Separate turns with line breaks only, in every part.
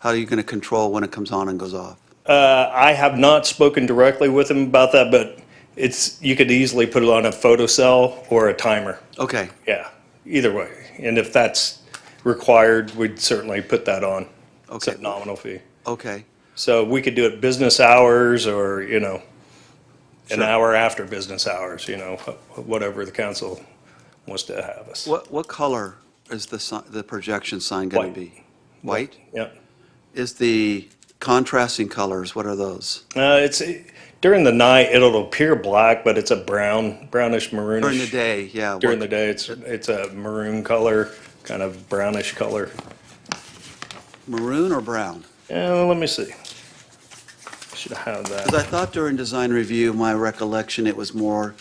How are you going to control when it comes on and goes off?
Uh, I have not spoken directly with him about that, but it's, you could easily put it on a photocell or a timer.
Okay,
Yeah, either way. And if that's required, we'd certainly put that on. It's a
Okay.
nominal fee.
okay,
So we could do it business hours or, you know, an
Sure.
hour after business hours, you know, wh- whatever the council wants to have us.
what, what color is the, si- the projection sign going
White.
to be? White?
Yep.
Is the contrasting colors, what are those?
Uh, it's during the night, it'll appear black, but it's a brown, brownish maroonish.
During the day, yeah.
During the
what-
day, it's, it's a maroon color, kind of brownish color.
Maroon or brown?
Yeah, well, let me see. Should have
Because
that.
I thought during design review, my recollection, it was more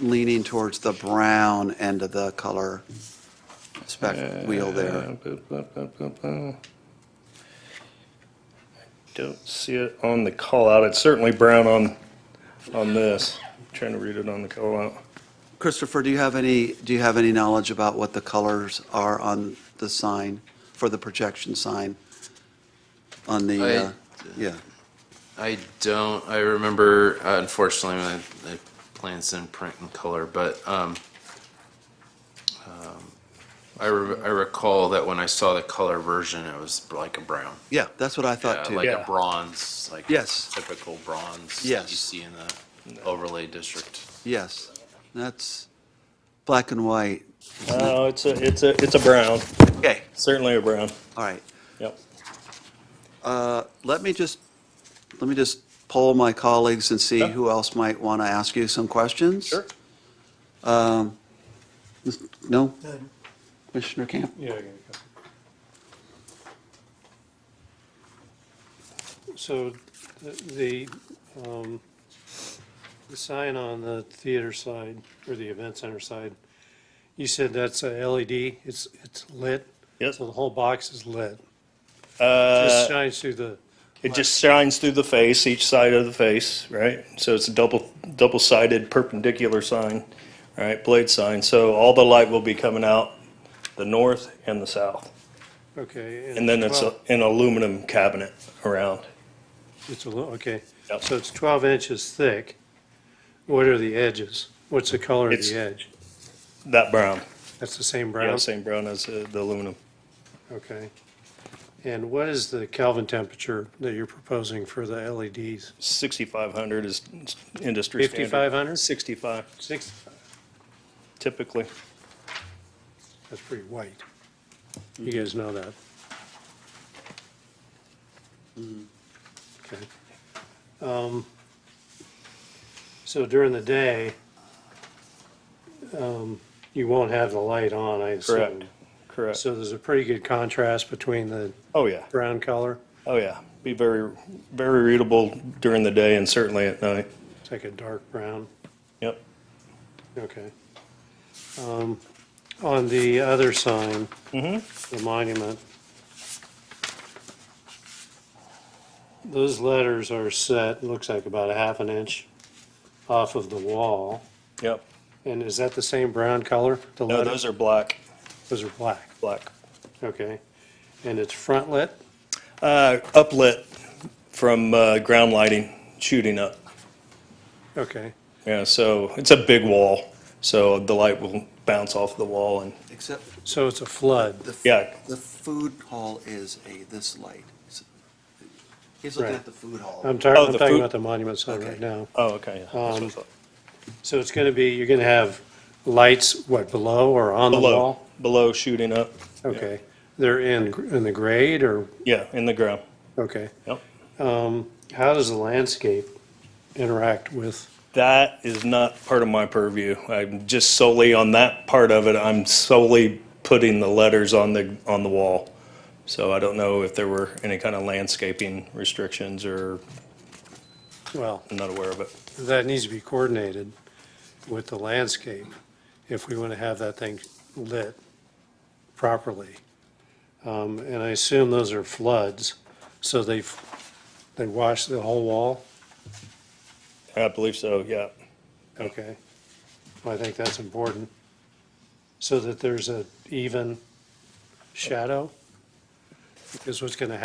leaning towards the brown end of the color spec wheel there.
Don't see it on the call out. It's certainly brown on, on this. Trying to read it on the call out.
Christopher, do you have any, do you have any knowledge about what the colors are on the sign, for the projection sign? On
I-
the, uh, yeah,
I don't. I remember, uh, unfortunately, my, my plans in print and color, but um, um, I, re- I recall that when I saw the color version, it was like a brown,
yeah, that's what I
yeah,
thought too.
like
Yeah.
a bronze, like
Yes.
typical bronze
Yes.
you see in the overlay district.
Yes, that's black and white.
Oh, it's a, it's a, it's a brown,
Okay,
certainly a brown.
all right.
Yep.
Let me just, let me just poll my colleagues and see
Yeah.
who else might want to ask you some questions.
Sure.
No? Commissioner Camp?
Yeah. I got a couple. So the- the, um, the sign on the theater side or the event center side, you said that's a LED, it's, it's lit?
Yes.
So the whole box is lit?
Uh,
Just shines through the,
It just shines through the face, each side of the face, right? So it's a double, double-sided perpendicular sign, right, blade sign. So all the light will be coming out the north and the south.
okay.
And then it's a-
well,
an aluminum cabinet around.
It's a little, okay.
Yep.
So it's 12 inches thick. What are the edges? What's the color of
It's-
the edge?
That brown,
That's the same brown?
yeah, same brown as uh, the aluminum.
Okay. And what is the Kelvin temperature that you're proposing for the E LEDs?
6,500 is industry standard.
5,500?
65,
Six,
typically.
that's pretty white. You guys know that. Okay. Um, So during the day, um, you won't have the light on, I assume.
Correct, correct.
So there's a pretty good contrast between the
Oh, yeah.
brown color.
Oh, yeah. Be very, very readable during the day and certainly at night.
It's like a dark brown.
Yep.
Okay. Um, On the other sign,
Mm-hmm.
the monument, those letters are set, looks like about a half an inch off of the wall.
Yep.
And is that the same brown color? The
No,
letters-
those are black,
Those are black,
black.
okay. And it's front lit?
Uh, uplit from, uh, ground lighting shooting up.
Okay,
Yeah, so it's a big wall, so the light will bounce off the wall and,
Except
so it's a flood.
the, f-
Yeah.
the food hall is a, this light. It's- He's looking
Right.
at the food hall.
I'm
Oh,
talking, I'm
the
talking
food-
about the monument sign
Okay.
right now.
oh, okay. yeah, that's what I
Um,
thought.
So it's going to be, you're going to have lights, what, below or on the
Below,
wall?
below shooting up,
Okay, they're in, gr- in the grade or,
yeah, in the ground.
okay.
Yep.
Um, How does the landscape interact with,
That is not part of my purview. I'm just solely on that part of it. I'm solely putting the letters on the, on the wall. So I don't know if there were any kind of landscaping restrictions or,
well,
I'm not aware of it.
that needs to be coordinated with the landscape if we want to have that thing lit properly. Um, And I assume those are floods, so they've, they wash the whole wall?
I believe so, yeah.
Okay. Well, I think that's important, so that there's a even shadow. Because what's going to